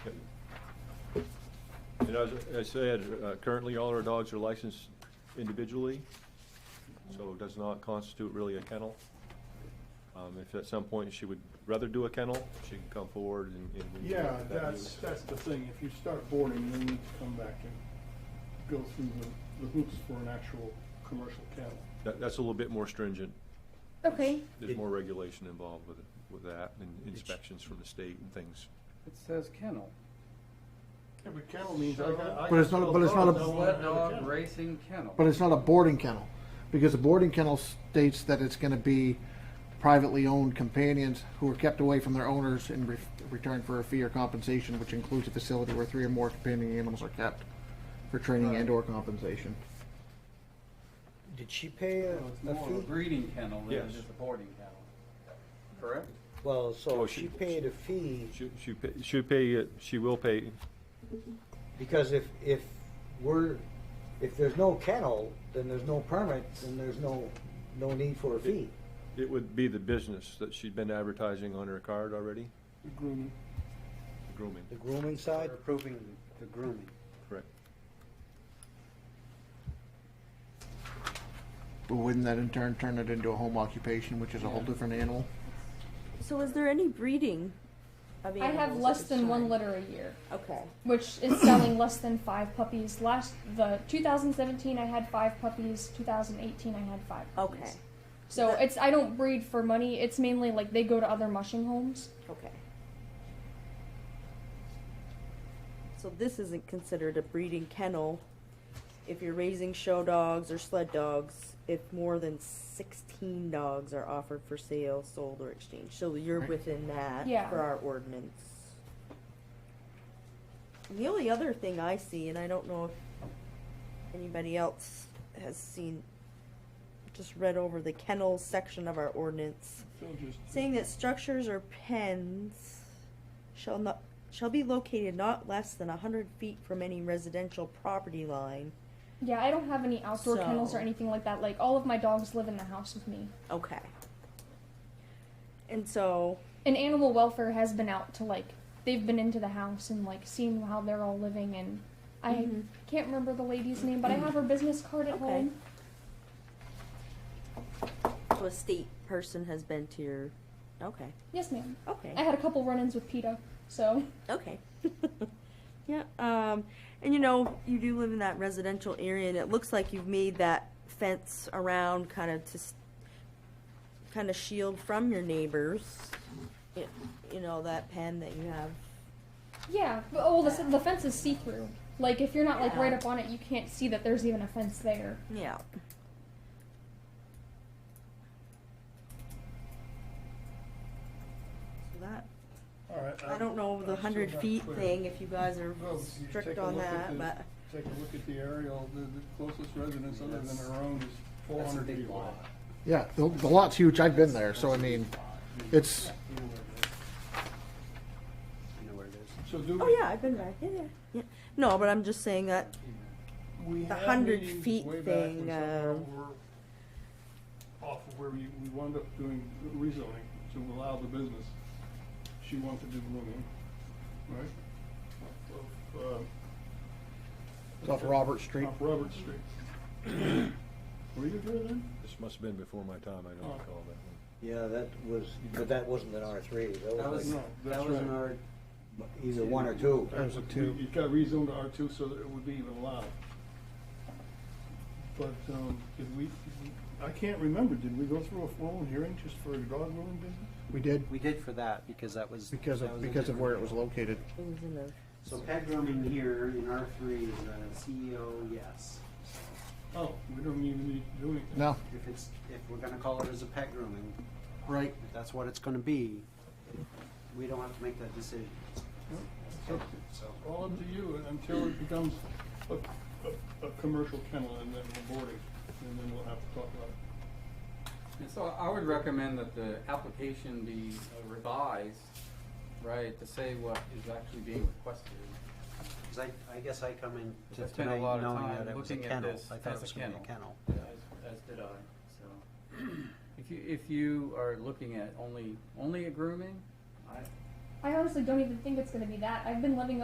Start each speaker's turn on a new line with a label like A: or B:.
A: And as I said, uh, currently all our dogs are licensed individually, so it does not constitute really a kennel. Um, If at some point she would rather do a kennel, she can come forward and. and we can
B: Yeah,
A: look at that
B: that's,
A: use.
B: that's the thing, if you start boarding, then you need to come back and go through the, the hoops for an actual commercial kennel.
A: That- That's a little bit more stringent.
C: Okay.
A: There's
D: It-
A: more regulation involved with, it- with that and inspections from the state and things.
E: It says kennel.
B: Yeah, but kennel means I got, I
F: But it's
B: got
F: not-
B: a
F: but it's not a-
B: dog, I wanna have
E: Sled
B: a
E: dog
B: kennel.
E: racing kennel.
F: But it's not a boarding kennel, because a boarding kennel states that it's gonna be privately owned companions who are kept away from their owners in re- return for a fee or compensation, which includes a facility where three or more companion animals are kept for training and or compensation.
D: Did she pay a,
E: So it's
D: a
E: more of a
D: fee?
E: breeding kennel than it
A: Yes.
E: is a boarding kennel. Correct?
D: Well, so
A: Oh,
D: she
A: she-
D: paid a fee,
A: She, she, pa- she'll pay, it- she will pay,
D: because if, if we're, if there's no kennel, then there's no permit, then there's no, no need for a fee.
A: it would be the business that she'd been advertising on her card already,
B: The grooming.
A: grooming,
D: The grooming side,
G: We're approving the grooming.
A: correct?
F: But wouldn't that in turn turn it into a home occupation, which is a whole different animal?
C: So is there any breeding of
H: I
C: animals?
H: have
C: at
H: less
C: this
H: than one
C: time?
H: litter a year,
C: Okay.
H: which is selling less than five puppies. Last the 2017, I had five puppies. 2018, I had five. Puppies.
C: Okay.
H: So it's I don't breed for money. It's mainly like they go to other mushing homes.
C: Okay. So this isn't considered a breeding kennel if you're raising show dogs or sled dogs, if more than sixteen dogs are offered for sale, sold, or exchanged. So you're
F: Right.
C: within that
H: Yeah.
C: for our ordinance. And The only other thing I see, and I don't know if anybody else has seen, just read over the kennels section of our ordinance
B: So just-
C: saying that structures or pens shall not shall be located not less than hundred feet from any residential property line.
H: Yeah, I don't have any outdoor
C: So-
H: kennels or anything like that. Like all of my dogs live in the house with me.
C: Okay. And so,
H: And animal welfare has been out to like they've been into the house and like seen how they're all living and I
C: Mhm.
H: can't remember the lady's name, but I have her business card at
C: Okay.
H: home.
C: so a state person has been to your, okay,
H: Yes, ma'am.
C: okay.
H: I had a couple run-ins with PETA, so
C: Okay. yeah. Um, and you know, you do live in that residential area, and it looks like you've made that fence around kind of to kind of shield from your neighbors. It, you know that pen that you have.
H: yeah. But, oh, the, the fence is see-through. Like if you're not like
C: Yeah.
H: right up on it, you can't see that there's even a fence there.
C: Yeah. So that
B: All right,
C: I don't
B: Uh,
C: know the
B: I'm still
C: hundred
B: not
C: feet
B: clear.
C: thing if you guys are
B: Well, if you take
C: strict
B: a
C: on
B: look at
C: that,
B: the-
C: but
B: Take a look at the aerial, the, the closest residence other than
D: That's-
B: her own is four
D: that's a
B: hundred
D: big
B: feet away.
D: lot.
F: Yeah, the, the lot's huge, I've been there, so I mean, it's,
B: You know where it is.
G: You know where it is.
B: So do
C: oh
B: we-
C: yeah, I've been back. Yeah, yeah, yeah. No, but I'm just saying that
B: We
C: The
B: had
C: 100
B: meetings
C: feet
B: way back when
C: thing,
B: somehow
C: um,
B: we're Off of where we, we wound up doing rezoning to allow the business. She wanted to do grooming, right? Of,
F: it's off Robert
B: uh,
F: Street.
B: off Robert Street. Were you there then?
A: This must have been before my time, I don't recall that one.
D: yeah, that was, but that wasn't an R three,
G: That was,
B: No, that's
G: that was an
B: right.
G: R,
D: like either one or two.
F: That was a two.
B: It got rezoned to R two, so that it would be even allowed. But, um, did we, did we- I can't remember, did we go through a formal hearing just for a dog grooming business?
F: We did,
G: we did for that because that was.
F: because
G: that
F: of,
G: was a
F: because of where it
G: different-
F: was located.
C: it was in the
G: So pet grooming here in R three is a CEO, yes.
B: Oh, we don't even need to do anything.
F: No,
G: If it's, if we're gonna call it as a pet grooming,
F: right.
G: if that's what it's gonna be, we don't have to make that decision.
B: Nope.
G: So,
B: All up to you and until it becomes a, a, a commercial kennel and then we're boarding, and then we'll have to talk about it.
E: And so I would recommend that the application be uh, revised, right, to say what is actually being requested.
G: 'cause I, I guess I come in
E: I
G: to
E: spent a
G: tonight
E: lot of
G: knowing
E: time
G: that it was a
E: looking at
G: kennel.
E: this
G: I thought
E: as
G: it
E: a
G: was gonna be a
E: kennel.
G: kennel.
E: As, as did I, so. If you, if you are looking at only, only a grooming, I,
H: I honestly don't even think it's going to be that. I've been living